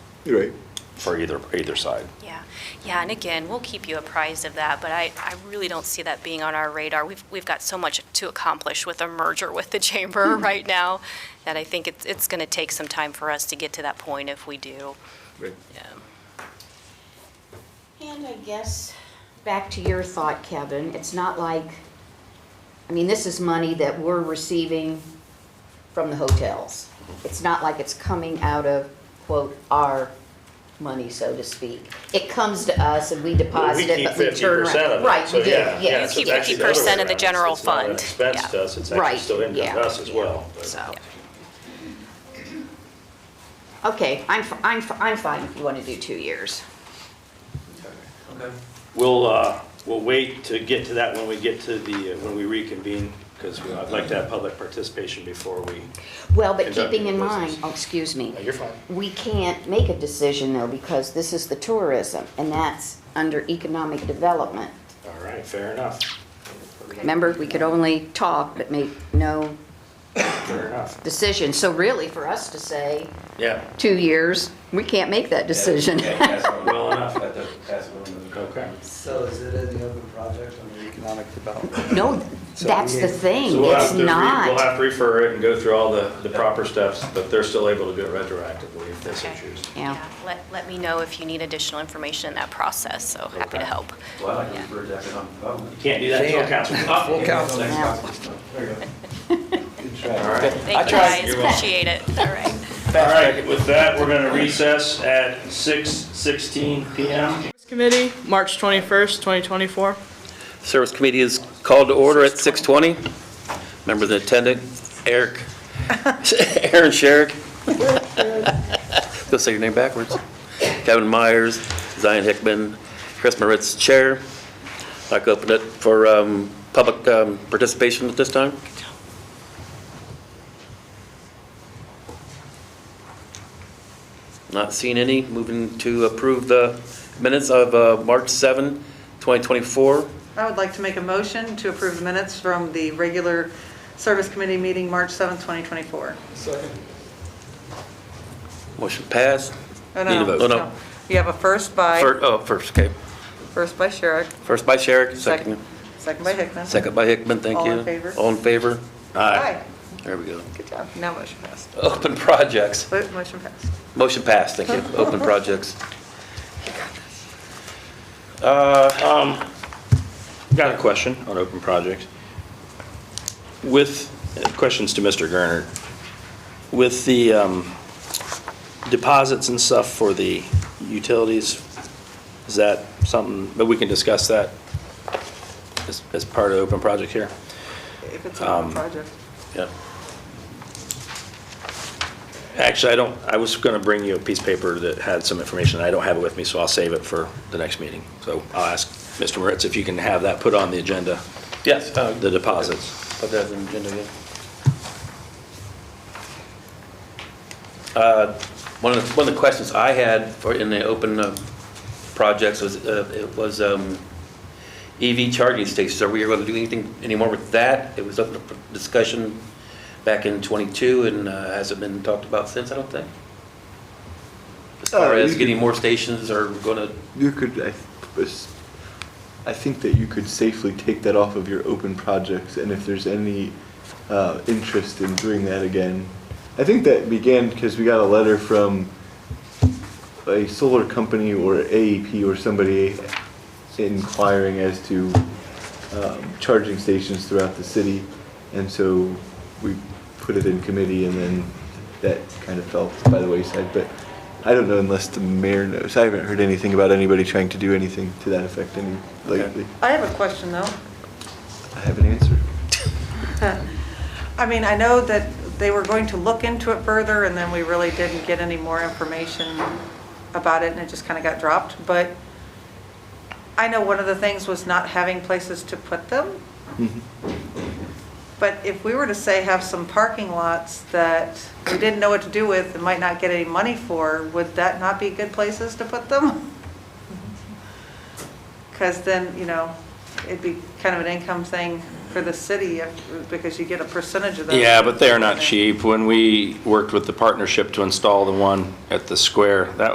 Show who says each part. Speaker 1: You're right.
Speaker 2: for either, either side.
Speaker 3: Yeah, yeah, and again, we'll keep you apprised of that, but I, I really don't see that being on our radar. We've, we've got so much to accomplish with a merger with the chamber right now that I think it's, it's going to take some time for us to get to that point if we do.
Speaker 1: Right.
Speaker 3: Yeah.
Speaker 4: And I guess, back to your thought, Kevin, it's not like, I mean, this is money that we're receiving from the hotels. It's not like it's coming out of, quote, our money, so to speak. It comes to us and we deposit it, but we turn around. Right, we do,
Speaker 3: You
Speaker 4: yes.
Speaker 3: keep 50% of the general fund.
Speaker 5: It's not an
Speaker 3: Yeah.
Speaker 5: expense to us, it's
Speaker 4: Right,
Speaker 5: actually still income
Speaker 4: yeah,
Speaker 5: to us as well. but-
Speaker 4: So. Okay, I'm, f- I'm, f- I'm fine if you want to do two years.
Speaker 5: We'll, uh, we'll wait to get to that when we get to the, uh, when we reconvene, because I'd like to have public participation before we,
Speaker 4: Well, but
Speaker 5: Conduct
Speaker 4: keeping in
Speaker 5: your
Speaker 4: mind,
Speaker 5: business.
Speaker 4: oh, excuse me.
Speaker 5: No, you're fine.
Speaker 4: We can't make a decision though, because this is the tourism, and that's under economic development.
Speaker 5: all right, fair enough,
Speaker 4: Remember, we could only talk but make no
Speaker 5: fair enough.
Speaker 4: decision. So really, for us to say,
Speaker 5: Yeah.
Speaker 4: two years, we can't make that decision.
Speaker 6: Yeah, that's what-
Speaker 5: Well enough.
Speaker 6: that doesn't- that's what I'm gonna-
Speaker 5: Okay.
Speaker 7: So is it in the open project under economic development?
Speaker 4: No, that's the
Speaker 5: So
Speaker 4: thing,
Speaker 5: we'll have
Speaker 4: it's
Speaker 5: to re- We'll
Speaker 4: not.
Speaker 5: have to refer it and go through all the, the proper steps, but they're still able to do it retroactively if they so
Speaker 3: Okay.
Speaker 5: choose.
Speaker 4: Yeah.
Speaker 3: Let, let me know if you need additional information in that process, so happy to
Speaker 5: Okay.
Speaker 3: help.
Speaker 6: Well, I can refer to economic development.
Speaker 5: Can't do that until council.
Speaker 7: Full council.
Speaker 6: There you go.
Speaker 7: Good try.
Speaker 5: All right.
Speaker 3: Thank you
Speaker 5: tried.
Speaker 3: guys,
Speaker 5: You're welcome.
Speaker 3: appreciate it. All right.
Speaker 5: All right, with that, we're gonna recess at six sixteen PM.
Speaker 8: Committee, March 21st, 2024.
Speaker 9: Service committee is called to order at 6:20. Members in attendance, Eric, Aaron Sherrick. Go say your name backwards. Kevin Myers, Zion Hickman, Chris Moritz, Chair. I'd like to open it for um, public um, participation at this time. Not seeing any. Moving to approve the minutes of uh, March 7, 2024.
Speaker 10: I would like to make a motion to approve the minutes from the regular service committee meeting, March 7th, 2024.
Speaker 9: Motion passed.
Speaker 10: Oh,
Speaker 9: Need a vote. Oh, no.
Speaker 10: You have a first by,
Speaker 9: Fir- Oh, first, okay.
Speaker 10: first by Sherrick,
Speaker 9: First by Sherrick, second,
Speaker 10: second by Hickman.
Speaker 9: second by Hickman, thank
Speaker 10: All
Speaker 9: you.
Speaker 10: in favor?
Speaker 9: All in favor?
Speaker 10: Aye.
Speaker 9: There we go.
Speaker 10: Good job. Now motion passed.
Speaker 9: Open projects.
Speaker 10: Vote, Motion passed.
Speaker 9: Motion passed, thank you. Open projects.
Speaker 2: Got a question on open projects. With, questions to Mr. Gernert. With the um, deposits and stuff for the utilities, is that something, but we can discuss that as, as part of open project here?
Speaker 10: If it's on
Speaker 9: Um,
Speaker 10: the project.
Speaker 2: Yeah. Actually, I don't, I was going to bring you a piece of paper that had some information. I don't have it with me, so I'll save it for the next meeting. So I'll ask Mr. Moritz if you can have that put on the agenda,
Speaker 9: Yes. uh,
Speaker 2: the deposits.
Speaker 9: Put that on the agenda again. Uh, One of, the- one of the questions I had for, in the open uh, projects was, uh, it was um, EV charging stations. Are we going to do anything anymore with that? It was up for discussion back in '22 and uh, hasn't been talked about since, I don't think. As far
Speaker 1: Uh, you
Speaker 9: as
Speaker 1: could-
Speaker 9: getting more stations or going to,
Speaker 1: You could, I, th- pers- I think that you could safely take that off of your open projects, and if there's any uh, interest in doing that again, I think that began because we got a letter from a solar company or AEP or somebody inquiring as to um, charging stations throughout the city, and so we put it in committee, and then that kind of fell by the wayside. But I don't know unless the mayor knows. I haven't heard anything about anybody trying to do anything to that effect any lately.
Speaker 10: I have a question, though.
Speaker 1: I have an answer.
Speaker 10: I mean, I know that they were going to look into it further, and then we really didn't get any more information about it, and it just kind of got dropped, but I know one of the things was not having places to put them. But if we were to say have some parking lots that we didn't know what to do with and might not get any money for, would that not be good places to put them? Because then, you know, it'd be kind of an income thing for the city if, because you get a percentage of those.
Speaker 2: Yeah, but they're not cheap. When we worked with the partnership to install the one at the square, that